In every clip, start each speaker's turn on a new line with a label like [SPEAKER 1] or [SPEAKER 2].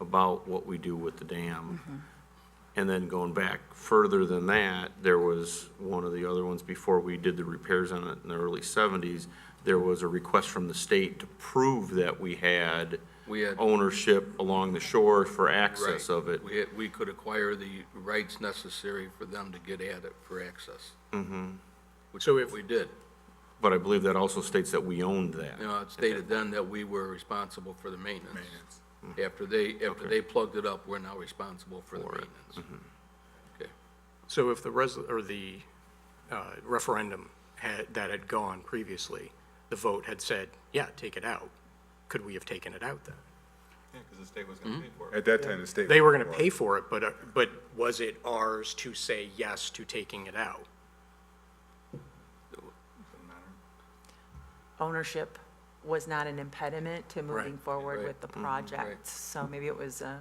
[SPEAKER 1] about what we do with the dam. And then going back further than that, there was one of the other ones before we did the repairs on it in the early seventies. There was a request from the state to prove that we had
[SPEAKER 2] We had-
[SPEAKER 1] ownership along the shore for Oh, access
[SPEAKER 2] Right.
[SPEAKER 1] of it.
[SPEAKER 2] We, we could acquire the rights necessary for them to get at it for access. Mm-hmm. Which
[SPEAKER 3] So if-
[SPEAKER 2] we did.
[SPEAKER 1] But I believe that also states that we owned that.
[SPEAKER 2] You know, it stated then that we were responsible for the maintenance. After they, after they plugged it up, we're now responsible for the maintenance. Okay.
[SPEAKER 3] So if the res, or the uh, referendum had, that had gone previously, the vote had said, yeah, take it out, could we have taken it out then?
[SPEAKER 4] Yeah, because the state was going to pay
[SPEAKER 2] Mm-hmm.
[SPEAKER 4] for it.
[SPEAKER 5] At that time, the state.
[SPEAKER 3] They were going to
[SPEAKER 5] was-
[SPEAKER 3] pay for it, but, uh, but was it ours to say yes to taking it out?
[SPEAKER 6] ownership was not an impediment to moving
[SPEAKER 3] Right,
[SPEAKER 6] forward
[SPEAKER 2] right.
[SPEAKER 6] with the project. So maybe it was a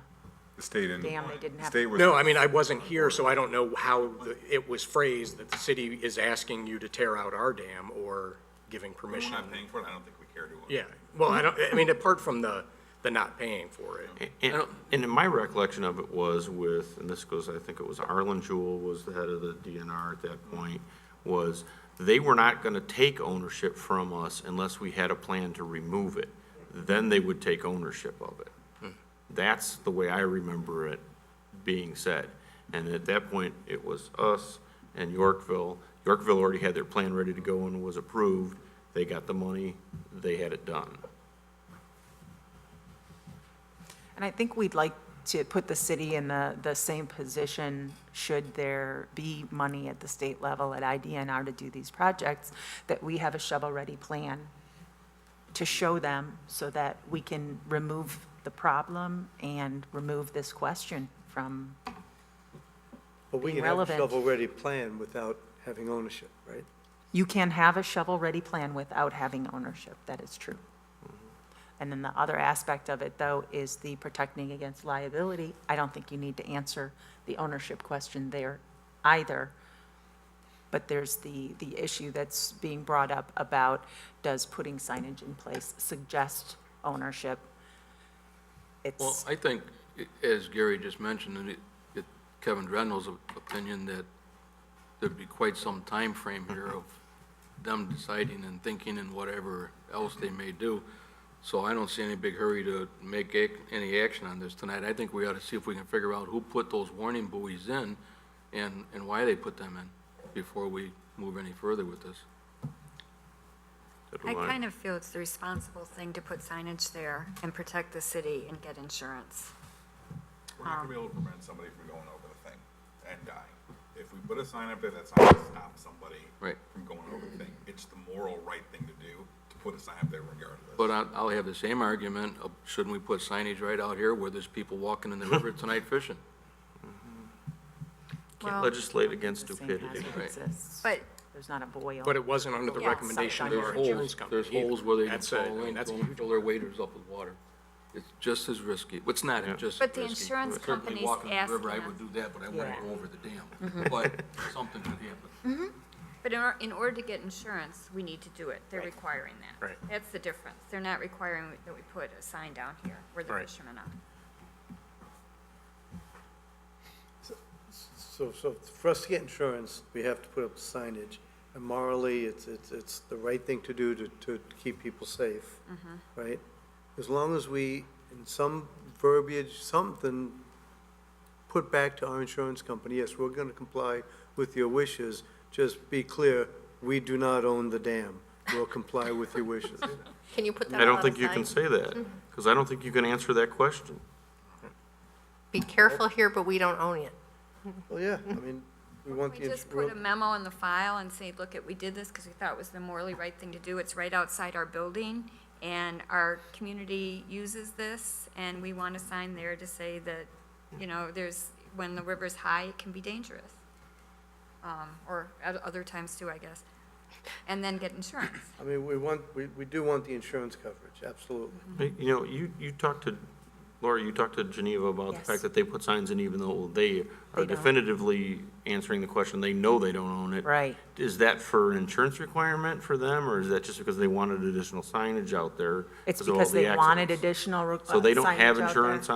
[SPEAKER 5] The state and.
[SPEAKER 6] Damn, they didn't have-
[SPEAKER 5] State was.
[SPEAKER 3] No, I mean, I wasn't here, so I don't know how the- it was phrased that the city is asking you to tear out our dam or giving
[SPEAKER 4] We're
[SPEAKER 3] permission.
[SPEAKER 4] not paying for it, I don't think we care to. uh,
[SPEAKER 3] Yeah, well, I don't, I mean, apart from the, the not paying for it.
[SPEAKER 1] And, and in my recollection of it was with, and this goes, I think it was Arlen Jewell was the head of the DNR at that point, was they were not gonna take ownership from us unless we had a plan to remove it. Then they would take ownership of it. That's the way I remember it being said. And at that point, it was us and Yorkville. Yorkville already had their plan ready to go and was approved. They got the money, they had it done.
[SPEAKER 6] And I think we'd like to put the city in the, the same position should there be money at the state level at IDNR to do these projects, that we have a shovel-ready plan to show them so that we can remove the problem and remove this question from,
[SPEAKER 7] But we
[SPEAKER 6] being
[SPEAKER 7] can have a
[SPEAKER 6] relevant.
[SPEAKER 7] shovel-ready plan without having ownership, right?
[SPEAKER 6] you can have a shovel-ready plan without having ownership, that is true. And then the other aspect of it, though, is the protecting against liability. I don't think you need to answer the ownership question there either. But there's the, the issue that's being brought up about, does putting signage in place suggest ownership?
[SPEAKER 2] Well,
[SPEAKER 6] It's,
[SPEAKER 2] I think, i- as Gary just mentioned, and it- it- Kevin Drendel's opinion, that there'd be quite some time frame here of them deciding and thinking and whatever else they may do. So I don't see any big hurry to make ac- any action on this tonight. I think we ought to see if we can figure out who put those warning buoys in and, and why they put them in before we move any further with this.
[SPEAKER 8] I kind of feel it's the responsible thing to put signage there and protect the city and get insurance.
[SPEAKER 4] We're not going to be able to prevent somebody from going over the thing and dying. If we put a sign up there, that's not going to stop somebody
[SPEAKER 2] Right.
[SPEAKER 4] from going over the thing. It's the moral right thing to do, to put a sign up there regardless.
[SPEAKER 2] But I- I'll have the same argument, of shouldn't we put signage right out here where there's people walking in the river tonight fishing?
[SPEAKER 8] Well,
[SPEAKER 1] Can't legislate against
[SPEAKER 6] the same
[SPEAKER 1] stupidity.
[SPEAKER 6] hazard exists.
[SPEAKER 8] But
[SPEAKER 6] There's not a boil.
[SPEAKER 3] But it wasn't under the
[SPEAKER 8] Yeah,
[SPEAKER 3] recommendation of
[SPEAKER 2] There's
[SPEAKER 3] our
[SPEAKER 6] sometimes.
[SPEAKER 3] insurance
[SPEAKER 2] holes,
[SPEAKER 3] company.
[SPEAKER 2] there's holes where they can
[SPEAKER 3] That's a- I
[SPEAKER 2] fall
[SPEAKER 3] mean,
[SPEAKER 2] in,
[SPEAKER 3] that's a
[SPEAKER 2] fill
[SPEAKER 3] huge
[SPEAKER 2] fill their waders up with water. It's just as risky. Well, It's not, it's just as risky.
[SPEAKER 8] But the insurance
[SPEAKER 2] Certainly
[SPEAKER 8] company's
[SPEAKER 2] walking the river,
[SPEAKER 8] asking
[SPEAKER 2] I would
[SPEAKER 8] us-
[SPEAKER 2] do that, but I wouldn't
[SPEAKER 6] Yeah.
[SPEAKER 2] go over the dam. But something could happen.
[SPEAKER 8] But in, or- in order to get insurance, we need to do it. They're requiring that.
[SPEAKER 3] Right.
[SPEAKER 8] That's the difference. They're not requiring that we put a sign down here where the
[SPEAKER 3] Right.
[SPEAKER 8] fishermen are.
[SPEAKER 7] So, so for us to get insurance, we have to put up signage. And morally, it's, it's, it's the right thing to do to, to keep people safe,
[SPEAKER 6] Mm-hmm.
[SPEAKER 7] right? As long as we, in some verbiage, something, put back to our insurance company, yes, we're gonna comply with your wishes. Just be clear, we do not own the dam. We'll comply with your wishes.
[SPEAKER 9] Can you put that
[SPEAKER 1] I
[SPEAKER 9] on
[SPEAKER 1] don't
[SPEAKER 9] the
[SPEAKER 1] think you can
[SPEAKER 9] sign?
[SPEAKER 1] say that, because I don't think you can answer that question.
[SPEAKER 9] Be careful here, but we don't own it.
[SPEAKER 7] Well, yeah, I mean, we want the.
[SPEAKER 8] We just put a memo in the file and say, look, at we did this because we thought it was the morally right thing to do. It's right outside our building, and our community uses this, and we want a sign there to say that, you know, there's, when the river's high, it can be dangerous. Um, Or at other times too, I guess. And then get insurance.
[SPEAKER 7] I mean, we want, we, we do want the insurance coverage, absolutely.
[SPEAKER 1] Hey, You know, you, you talked to, Laura, you talked to Geneva about the
[SPEAKER 6] Yes.
[SPEAKER 1] fact that they put signs in even though they are
[SPEAKER 6] don't.
[SPEAKER 1] definitively answering the question, they know they don't own it.
[SPEAKER 6] Right.
[SPEAKER 1] Is that for an insurance requirement for them, or is that just because they wanted additional signage out there?
[SPEAKER 6] It's
[SPEAKER 1] of all
[SPEAKER 6] because
[SPEAKER 1] the
[SPEAKER 6] they wanted
[SPEAKER 1] accidents?
[SPEAKER 6] additional. re- uh,
[SPEAKER 1] So they don't
[SPEAKER 6] signage
[SPEAKER 1] have
[SPEAKER 6] out there.
[SPEAKER 1] insurance